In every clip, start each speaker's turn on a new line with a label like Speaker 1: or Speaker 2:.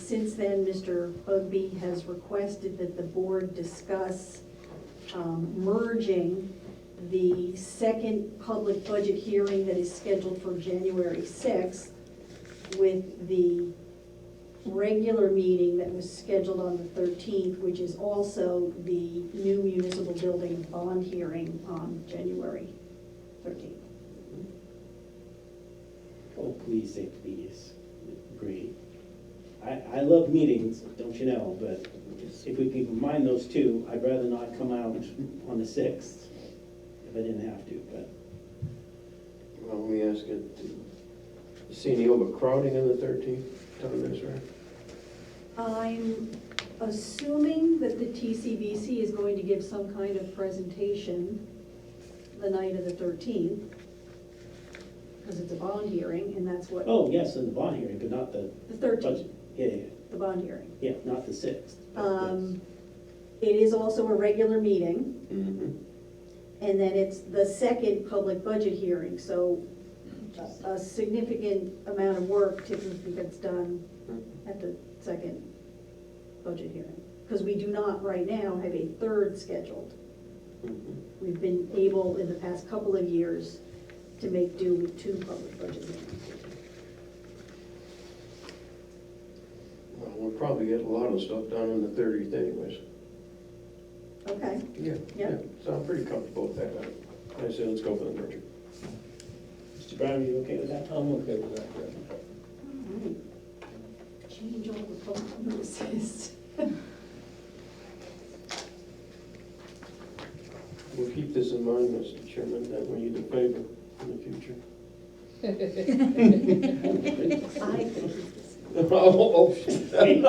Speaker 1: Since then, Mr. Bugby has requested that the board discuss um, merging the second public budget hearing that is scheduled for January 6th with the regular meeting that was scheduled on the 13th, which is also the new municipal building bond hearing on January 13th.
Speaker 2: Oh, please say please, great. I, I love meetings, don't you know, but if we can combine those two, I'd rather not come out on the sixth if I didn't have to, but
Speaker 3: Well, let me ask it, you see any overcrowding on the thirteenth, Tom, that's right?
Speaker 1: I'm assuming that the TCBC is going to give some kind of presentation the night of the 13th, because it's a bond hearing, and that's what,
Speaker 2: Oh, yes, in the bond hearing, but not the
Speaker 1: the 13th,
Speaker 2: budget. Yeah, yeah,
Speaker 1: the bond hearing.
Speaker 2: yeah, not the sixth.
Speaker 1: Um, It is also a regular meeting,
Speaker 3: Mm-hmm.
Speaker 1: and then it's the second public budget hearing, so a- a significant amount of work typically gets done at the second budget hearing. Because we do not right now have a third scheduled.
Speaker 3: Mm-hmm.
Speaker 1: We've been able in the past couple of years to make do with two public budget hearings.
Speaker 3: Well, we'll probably get a lot of stuff done on the thirtieth anyways.
Speaker 1: Okay,
Speaker 3: Yeah.
Speaker 1: Yeah.
Speaker 3: So I'm pretty comfortable with that. I say let's go for the merger.
Speaker 2: Mr. Brown, are you okay with that?
Speaker 4: I'm okay with that, yeah.
Speaker 1: all right. Change all the public notices.
Speaker 3: We'll keep this in mind, Mr. Chairman, that we need a favor in the future.
Speaker 1: I think it's-
Speaker 3: Oh,
Speaker 2: I'm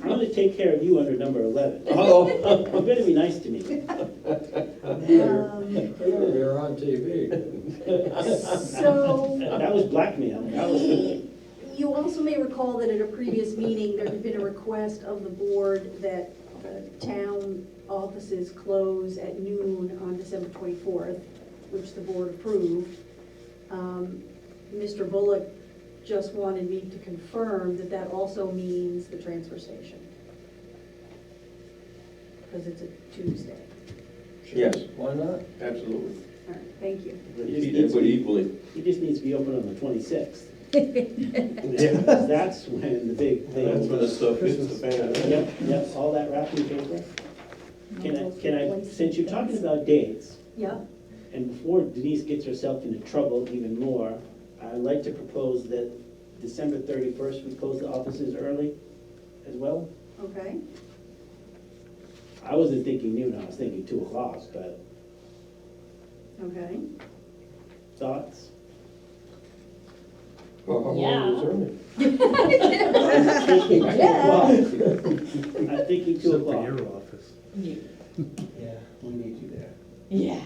Speaker 2: gonna take care of you under number eleven.
Speaker 3: oh.
Speaker 2: You better be nice to me.
Speaker 1: Um,
Speaker 4: You're on TV.
Speaker 1: So,
Speaker 2: That was blackmail, that was,
Speaker 1: you also may recall that at a previous meeting, there had been a request of the board that the town offices close at noon on December 24th, which the board approved. Um, Mr. Bullock just wanted me to confirm that that also means the transfer station. Because it's a Tuesday.
Speaker 3: Yes,
Speaker 4: Why not?
Speaker 3: absolutely.
Speaker 1: All right, thank you.
Speaker 2: he just needs,
Speaker 3: But equally.
Speaker 2: he just needs to be open on the twenty-sixth.
Speaker 3: Yeah.
Speaker 2: That's when the big thing.
Speaker 3: That's when the stuff hits the fan.
Speaker 2: Yep, yep, all that wrapping paper. Can I, can I, since you're talking about dates,
Speaker 1: Yeah,
Speaker 2: and before Denise gets herself into trouble even more, I'd like to propose that December thirty-first, we close the offices early as well.
Speaker 1: okay.
Speaker 2: I wasn't thinking noon, I was thinking two o'clock, but
Speaker 1: Okay.
Speaker 2: thoughts?
Speaker 3: Well, how long is early?
Speaker 2: Thinking two
Speaker 1: Yeah.
Speaker 2: o'clock. I'm thinking two
Speaker 5: Except for
Speaker 2: o'clock.
Speaker 5: your office.
Speaker 4: Yeah, we need you there.
Speaker 6: Yeah.
Speaker 3: I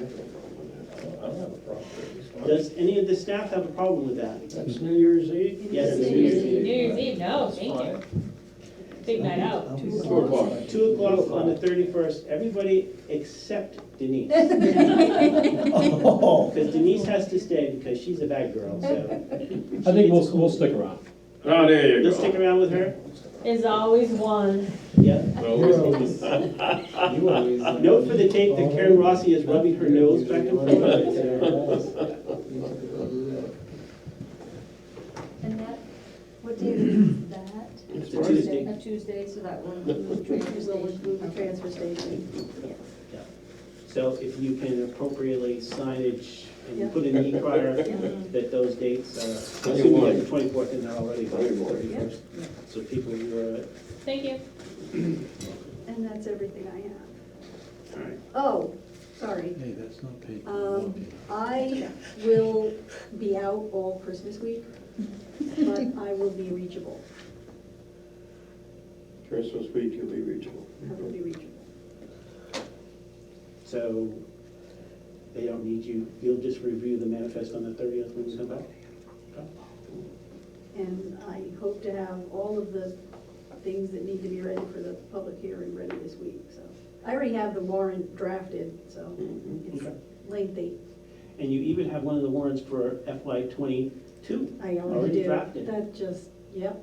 Speaker 3: have no problem with
Speaker 4: I don't I don't have a problem with this.
Speaker 2: Does any of the staff have a problem with that?
Speaker 3: That's New Year's Eve?
Speaker 2: Yes,
Speaker 6: New
Speaker 2: it's
Speaker 6: Year's
Speaker 2: New Year's Eve.
Speaker 6: Eve, no, thank you. Big night out.
Speaker 3: Four o'clock.
Speaker 2: Two o'clock on the thirty-first, everybody except Denise.
Speaker 4: Oh,
Speaker 2: Because Denise has to stay because she's a bad girl, so.
Speaker 5: I think we'll, we'll stick around.
Speaker 3: Oh, there
Speaker 2: Let's stick around with her?
Speaker 6: There's always one.
Speaker 2: Yeah.
Speaker 4: you always.
Speaker 2: Note for the tape that Karen Rossi is rubbing her nose back and forth.
Speaker 4: forth.
Speaker 7: And that, what day is that?
Speaker 2: It's a Tuesday.
Speaker 7: A Tuesday, so that will include transfer
Speaker 1: We'll include the
Speaker 7: station.
Speaker 1: transfer station.
Speaker 2: So if you can appropriately signage
Speaker 1: Yeah.
Speaker 2: and put in the e-crier that those dates are, I
Speaker 3: Yeah,
Speaker 2: assume you
Speaker 3: why?
Speaker 2: have the twenty-fourth in there already, but
Speaker 3: Yeah.
Speaker 2: thirty-first. So people uh, who are,
Speaker 6: Thank you.
Speaker 1: And that's everything I have.
Speaker 2: all right.
Speaker 1: Oh, sorry.
Speaker 5: Hey, that's not paid.
Speaker 1: Um, I will be out all Christmas week, but I will be reachable.
Speaker 3: Christmas week, you'll be reachable.
Speaker 1: I will be reachable.
Speaker 2: So they don't need you, you'll just review the manifest on the thirtieth when you come back?
Speaker 1: And I hope to have all of the things that need to be ready for the public hearing ready this week, so. I already have the warrant drafted, so
Speaker 3: Mhm.
Speaker 1: it's
Speaker 2: Mm-hmm. Okay.
Speaker 1: lengthy.
Speaker 2: And you even have one of the warrants for FY twenty-two.
Speaker 1: I
Speaker 2: Already
Speaker 1: already do.
Speaker 2: drafted.
Speaker 1: That just Yep.